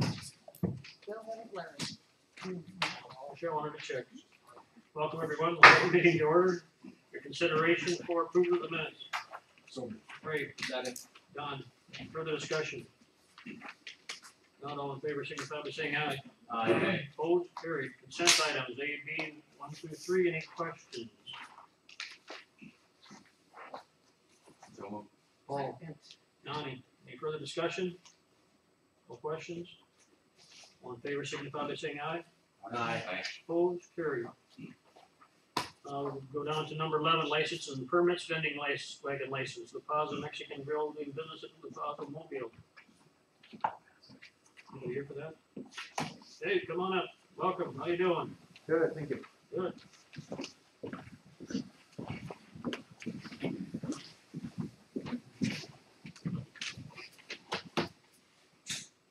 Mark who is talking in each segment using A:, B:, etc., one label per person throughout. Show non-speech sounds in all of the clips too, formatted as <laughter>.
A: Bill haven't learned.
B: Cheryl, let me check. Welcome, everyone. We'll have a meeting to order. Your consideration for approval of the minutes. Great. Done. Further discussion? Not all in favor, signify by saying aye.
C: Aye.
B: Opposed, carried. Consent items A, B, one through three. Any questions? Paul, Donnie, any further discussion? No questions? All in favor, signify by saying aye. Opposed, carried. Uh, we'll go down to number eleven, licenses and permits, vending license, wagon license, La Paz Mexican Grill, doing business at La Paz Mobile. Anybody here for that? Hey, come on up, welcome, how you doing?
D: Good, thank you.
B: Good.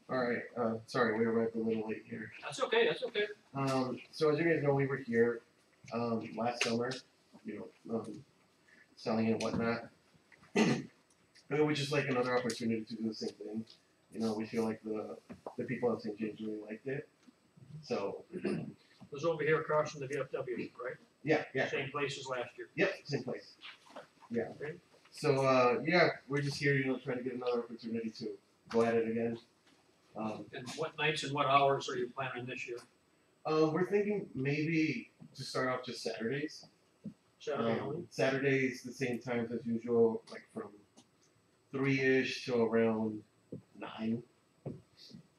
D: All right, uh, sorry, we arrived a little late here.
B: That's okay, that's okay.
D: Um, so as you guys know, we were here, um, last summer, you know, um, selling and whatnot. <clears throat> And it was just like another opportunity to do the same thing, you know, we feel like the, the people at St. James really liked it. So,
B: It was over here across from the VFW, right?
D: yeah, yeah,
B: Same place as last year.
D: yep, same place, yeah.
B: Okay.
D: So, uh, yeah, we're just here, you know, trying to get another opportunity to go at it again. Um,
B: And what nights and what hours are you planning this year?
D: uh, we're thinking maybe to start off just Saturdays.
B: Saturday only?
D: Um, Saturdays, the same times as usual, like from three ish to around nine.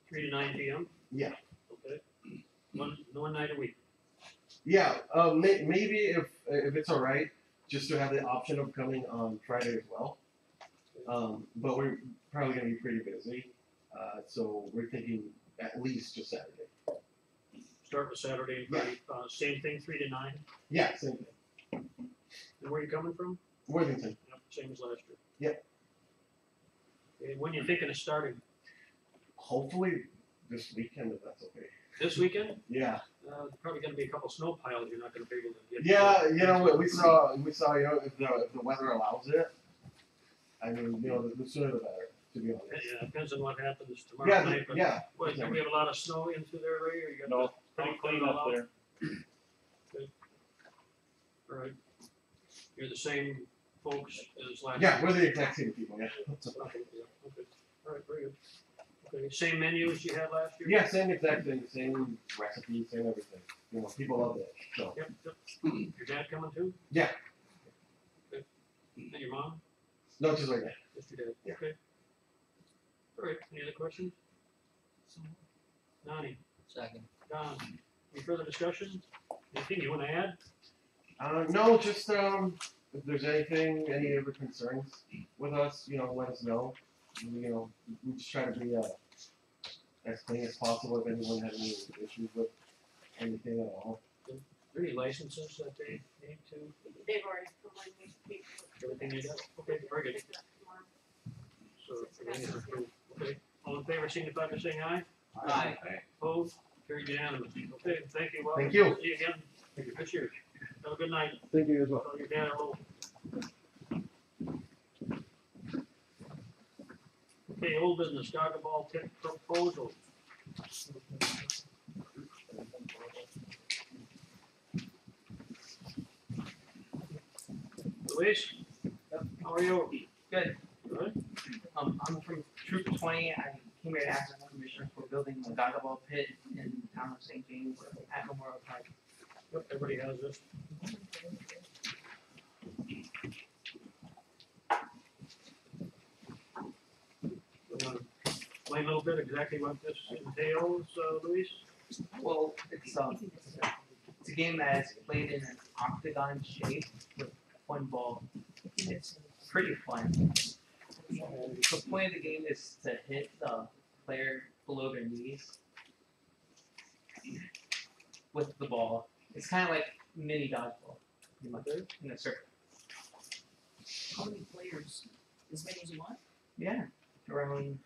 B: Three to nine P M?
D: Yeah.
B: Okay. One, one night a week.
D: Yeah, um, may- maybe if if it's all right, just to have the option of coming on Friday as well. Um, but we're probably gonna be pretty busy, uh, so we're thinking at least just Saturday.
B: Start with Saturday,
D: Yeah.
B: uh, same thing, three to nine.
D: Yeah, same thing.
B: And where you coming from?
D: Worthington.
B: Yep, same as last year.
D: Yep.
B: Okay, when you thinking of starting?
D: Hopefully this weekend, if that's okay.
B: This weekend?
D: Yeah.
B: Uh, probably gonna be a couple snow piles you're not gonna be able to get. to.
D: Yeah, you know, we- we saw, we saw, you know, if the, if the weather allows it, I mean, you know, the- the sooner the better, to be
B: Yeah,
D: honest.
B: Yeah, depends on what happens tomorrow
D: Yeah,
B: night, but,
D: yeah,
B: what, do we have a lot of snow into there, Ray, or you got?
C: No,
B: that
C: Pretty clean
B: all
C: up
B: out?
C: there.
B: All Right. You're the same folks as last.
D: yeah,
B: year.
D: we're the exact same people, yeah.
B: Okay, yeah, okay. All right, very good. Okay, same menu as you had last year?
D: Yeah, same exact thing, same recipe, same everything, you know, people love it, so.
B: Yep, yep. Your dad coming too?
D: Hmm. Yeah.
B: Okay. And your mom?
D: No, just like that,
B: Yes, you did.
D: Yeah.
B: Okay. All right, any other questions? Donnie,
E: Second.
B: Don, any further discussion? Anything you wanna add?
D: uh, no, just, um, if there's anything, any other concerns with us, you know, let us know. You know, we just try to be, uh, as clean as possible, if anyone had any issues with anything at all.
B: Are there Any licenses that they need to,
F: They've already provided these people.
B: everything they got? Okay, very good.
F: Pick it up tomorrow.
B: So, everything is approved. Okay, all in favor, signify by saying aye.
E: Aye.
B: Opposed, carried unanimously. Okay, thank you. Welcome.
D: Thank you.
B: See you again.
D: Thank you.
B: This year. Have a good night.
D: Thank you as well.
B: Tell your dad hello. Okay, old business, Gaga Ball tip proposal. Luis? How are you?
E: Good.
B: Good?
E: Um, I'm from Troop Twenty, I came here to ask the commissioner for building the Gaga Ball pit in town of St. James at Memorial Park.
B: Yep, Everybody has this. You wanna Explain a little bit exactly what this entails, uh, Luis?
E: Well, it's um, it's a game that is played in an octagon shape with one ball. It's pretty fun. The point of the game is to hit the player below their knees with the ball. It's kind of like mini dodgeball, pretty much, in a circle.
A: How many players, as many as you want?
E: Yeah, around